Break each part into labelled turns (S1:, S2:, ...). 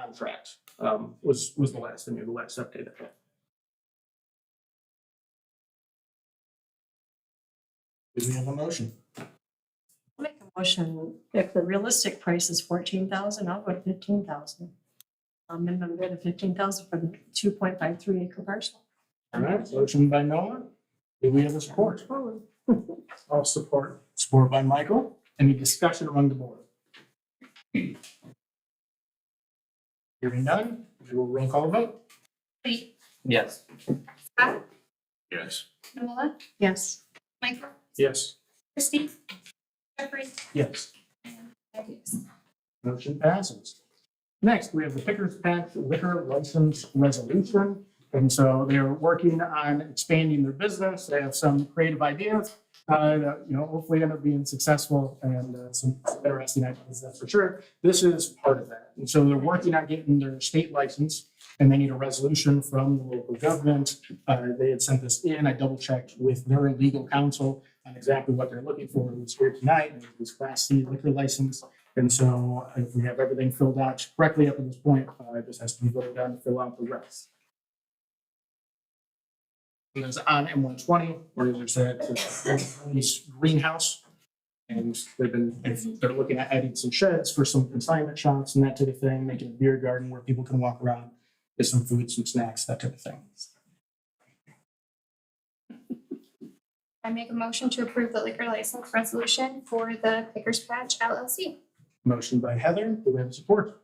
S1: contract, um, was, was the last, I mean, the last update. I think.
S2: Do we have a motion?
S3: Make a motion, if the realistic price is fourteen thousand, I'll go to fifteen thousand. Um, and I'm going to fifteen thousand for the two point five three acre parcel.
S2: All right, motion by Noah. Do we have a support?
S1: I'll support.
S2: Support by Michael.
S1: Any discussion among the board?
S2: Hearing none, we will roll call vote.
S4: Lee,
S5: Yes.
S4: Scott,
S2: Yes.
S4: Noah,
S3: Yes,
S4: Michael,
S1: Yes.
S4: Christie, Jeffrey,
S2: Yes.
S4: and Hughes.
S2: Motion passes. Next, we have the Pickers Patch Liquor License Resolution. And so they're working on expanding their business. They have some creative ideas. uh, that, you know, hopefully end up being successful and uh, some interesting ideas, that's for sure. This is part of that. And so they're working on getting their state license and they need a resolution from the local government. Uh, they had sent this in. I double checked with their legal counsel on exactly what they're looking for. It was here tonight. It was Class C liquor license. And so if we have everything filled out correctly up to this point, uh, it just has to be voted down to fill out the rest. And it's on M one twenty, or there's that uh, this greenhouse. And they've been, if they're looking at adding some sheds for some consignment shops and that type of thing, making a beer garden where people can walk around, get some food, some snacks, that type of thing.
S4: I make a motion to approve the liquor license resolution for the Pickers Patch LLC.
S2: Motion by Heather, do we have support?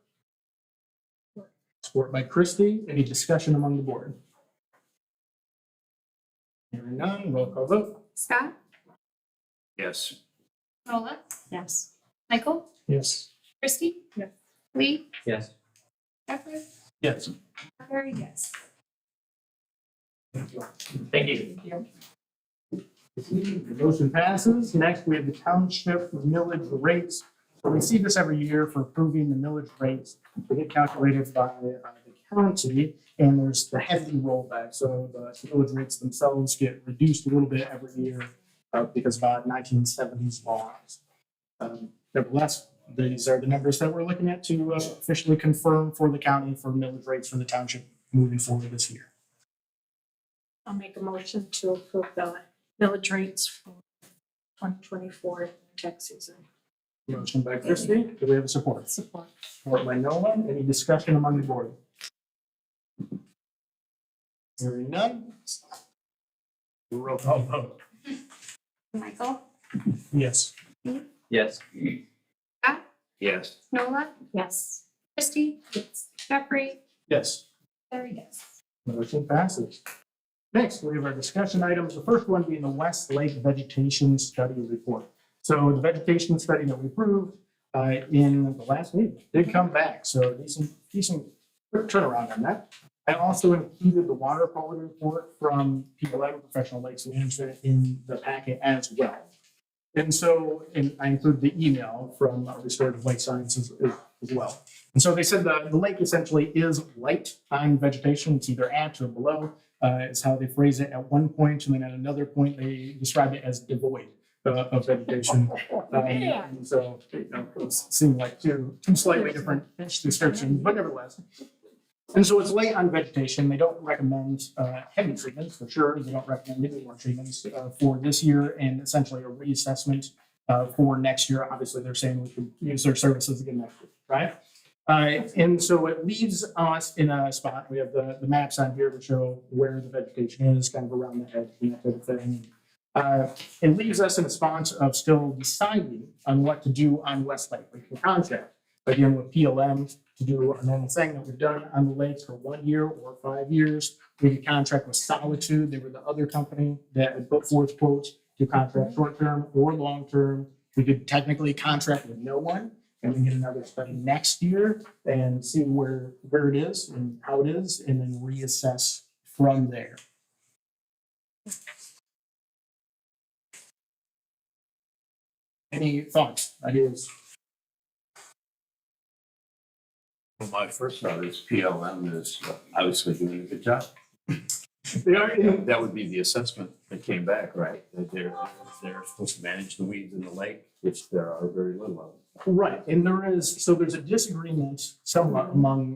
S2: Support by Christie, any discussion among the board? Hearing none, roll call vote.
S4: Scott,
S5: Yes.
S4: Noah,
S3: yes.
S4: Michael,
S2: Yes.
S4: Christie.
S3: Yeah.
S4: Lee,
S5: Yes.
S4: Jeffrey,
S2: Yes.
S4: Very yes.
S5: Thank you.
S2: The Motion passes. Next, we have the township millage rates. So We see this every year for approving the millage rates. They get calculated by uh, the county and there's the heavy rollback. So the millage rates themselves get reduced a little bit every year uh, because of nineteen seventies laws. Um, Nevertheless, these are the numbers that we're looking at to uh, officially confirm for the county for millage rates for the township moving forward this year.
S3: I'll make a motion to approve the village rates for twenty twenty-four tax season.
S2: Motion by Christie. Do we have a support?
S3: Support.
S2: Support by Noah. Any discussion among the board? Hearing none. Roll call vote.
S4: Michael,
S2: Yes.
S5: Yes.
S4: Ah.
S5: Yes.
S4: Noah,
S3: Yes.
S4: Christie, Jeffrey,
S2: Yes.
S4: Very yes.
S2: Motion passes. Next, we have our discussion items. The first one being the West Lake Vegetation Study Report. So the vegetation study that we approved uh, in the last meeting did come back, so decent, decent quick turnaround on that. I also included the water quality report from PLM Professional Lakes Management in the packet as well. And so, and I include the email from Restorative Lake Sciences as as well. And so they said the, the lake essentially is light on vegetation. It's either at or below, uh, is how they phrase it at one point, And then at another point, they describe it as devoid uh, of vegetation. Um, and So, you know, it seemed like two, two slightly different descriptions, but nevertheless. And so it's light on vegetation. They don't recommend uh, heavy treatments for sure. They don't recommend any more treatments uh, for this year and essentially a reassessment uh, for next year. Obviously, they're saying we could use their services again next year, right? Uh, and so it leaves us in a spot. We have the, the maps on here to show where the vegetation is, kind of around the edge and that type of thing. Uh, it leaves us in a spot of still deciding on what to do on Westlake. We can contract again with PLM to do a normal thing that we've done on the lakes for one year or five years. We could contract with Solitude. They were the other company that had put forth quotes to contract short term or long term. We could technically contract with no one and we can get another study next year and see where, where it is and how it is, and then reassess from there. Any thoughts, ideas?
S6: Well, my first thought is PLM is obviously doing a good job.
S2: They are,
S6: That would be the assessment that came back, right? That they're, they're supposed to manage the weeds in the lake, which there are very little of.
S2: Right, and there is, so there's a disagreement somewhat among